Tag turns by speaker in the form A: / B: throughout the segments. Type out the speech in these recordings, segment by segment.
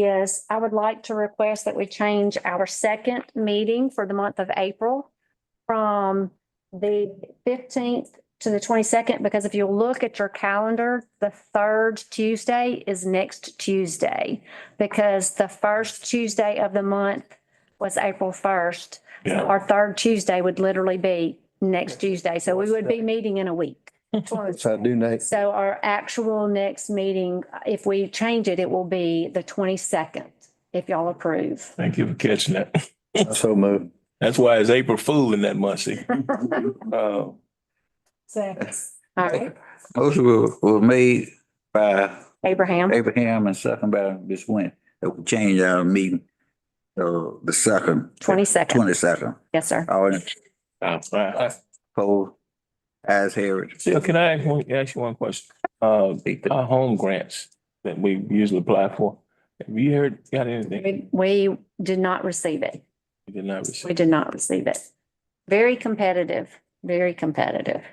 A: is I would like to request that we change our second meeting for the month of April from the fifteenth to the twenty-second, because if you look at your calendar, the third Tuesday is next Tuesday, because the first Tuesday of the month was April first.
B: Yeah.
A: Our third Tuesday would literally be next Tuesday, so we would be meeting in a week.
C: So I do, Nate.
A: So our actual next meeting, if we change it, it will be the twenty-second, if y'all approve.
B: Thank you for catching that.
C: So move.
B: That's why it's April Fool in that month, see? Uh,
A: Seconds. All right,
D: Motion were, were made by
A: Abraham,
D: Abraham and second by Ms. Wynn, that we change our meeting, uh, the second.
A: twenty-second,
D: Twenty second,
A: yes, sir.
D: all in
B: all right.
D: favor, as heard.
B: Still, Uh, can I ask one- ask you one question? Uh, our home grants that we usually apply for, have you heard, got anything?
A: We- We did not receive it.
B: You did not
A: We
B: receive.
A: did not receive it. Very competitive, very competitive.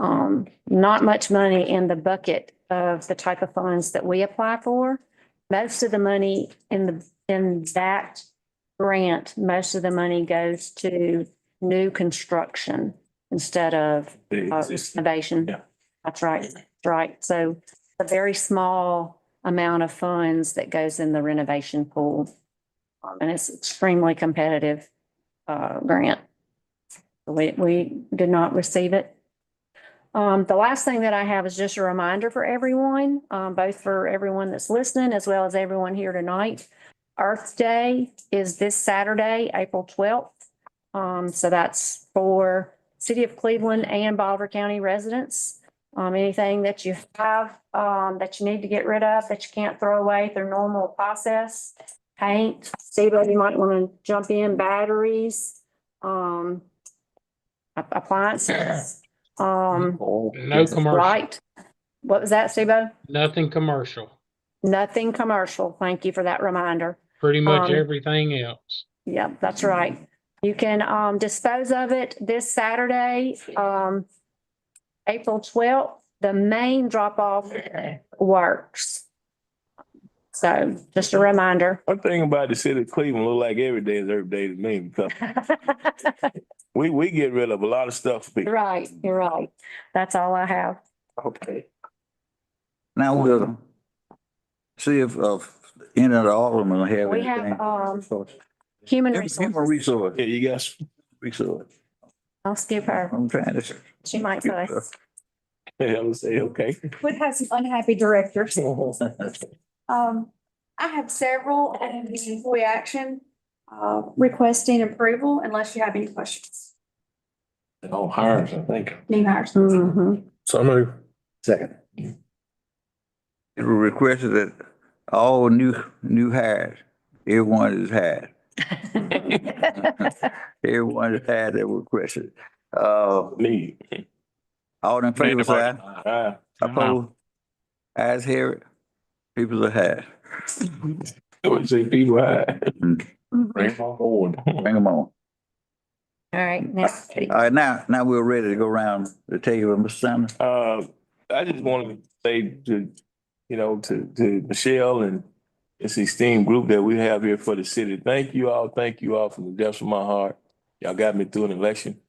A: Um, not much money in the bucket of the type of funds that we apply for. Most of the money in the, in that grant, most of the money goes to new construction instead of
B: the
A: uh,
B: existing-
A: renovation.
B: Yeah.
A: That's right, that's right. So a very small amount of funds that goes in the renovation pool. Um, And it's extremely competitive uh, grant. We, we did not receive it. Um, the last thing that I have is just a reminder for everyone, um, both for everyone that's listening as well as everyone here tonight. Earth Day is this Saturday, April twelfth. Um, so that's for city of Cleveland and Bolivar County residents. Um, anything that you have, um, that you need to get rid of, that you can't throw away through normal process. Paint, Steve, you might want to jump in, batteries, um, app- appliances, um.
E: No commercial,
A: Right. What was that, Steve?
E: nothing commercial,
A: Nothing commercial. Thank you for that reminder.
E: pretty much
A: Um,
E: everything else.
A: Yep, that's right. You can um dispose of it this Saturday, um, April twelfth, the main drop off works. So just a reminder.
B: One thing about the city of Cleveland, look like every day is every day to me, because we, we get rid of a lot of stuff. people.
A: Right, you're right. That's all I have.
D: Okay. Now we'll see if, of, any of the aldermen have anything.
A: We have um
D: Resource.
A: human
D: Human
A: resources.
D: resource,
B: Yeah, you guys,
D: resource,
A: I'll skip her.
D: I'm trying to.
A: She might fuss.
B: I would say, okay.
F: would have some unhappy directors. Um, I have several and this is employee action, uh, requesting approval unless you have any questions.
B: Oh, hires, I think.
F: New hires.
A: Mhm.
B: So move.
C: Second.
D: It was requested that all new, new hires, everyone is hired. Everyone is hired that requested. Uh,
B: Me. Uh,
D: all in favor, say aye.
B: Aye.
D: Opposed? Ayes have it. People are hired.
B: I would say be wide. Bring them on board.
D: Bring them on.
A: All right, next.
D: All right, now, now we're ready to go around the table, Mr. Sanders.
B: Uh, I just wanted to say to, you know, to, to Michelle and this esteemed group that we have here for the city, thank you all, thank you all from the depths of my heart. Y'all got me through an election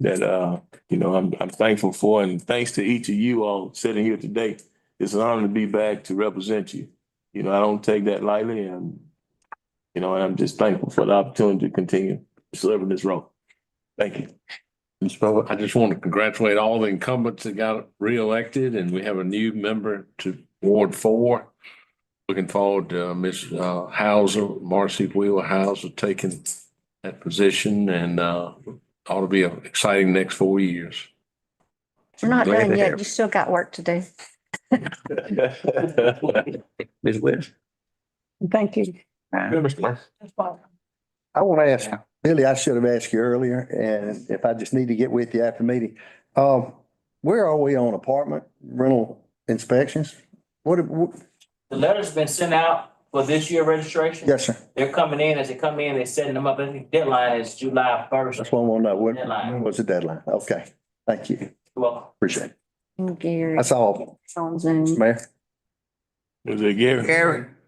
B: that, uh, you know, I'm, I'm thankful for and thanks to each of you all sitting here today. It's an honor to be back to represent you. You know, I don't take that lightly and, you know, and I'm just thankful for the opportunity to continue serving this role. Thank you.
D: Ms. Bowler.
G: I just want to congratulate all the incumbents that got reelected and we have a new member to Ward Four. Looking forward to uh, Ms. uh, Hauser, Marcy Wheeler Hauser taking that position and uh, ought to be an exciting next four years.
A: We're not
D: Glad
A: done
D: to
A: yet.
D: have-
A: You still got work to do.
D: Ms. West.
A: Thank you.
C: I want to ask, Billy, I should have asked you earlier, and if I just need to get with you after meeting. Um, where are we on apartment rental inspections? What, what-
H: The letter's been sent out for this year registration.
C: yes, sir.
H: They're coming in, as they come in, they're setting them up, I think deadline is July first.
C: That's what I want to know. When,
H: Deadline.
C: when was the deadline? Okay, thank you.
H: Well,
C: Appreciate it.
A: And Gary.
C: That's all,
A: It's on Zoom.
C: Mayor.
B: Was it Gary?
D: Gary.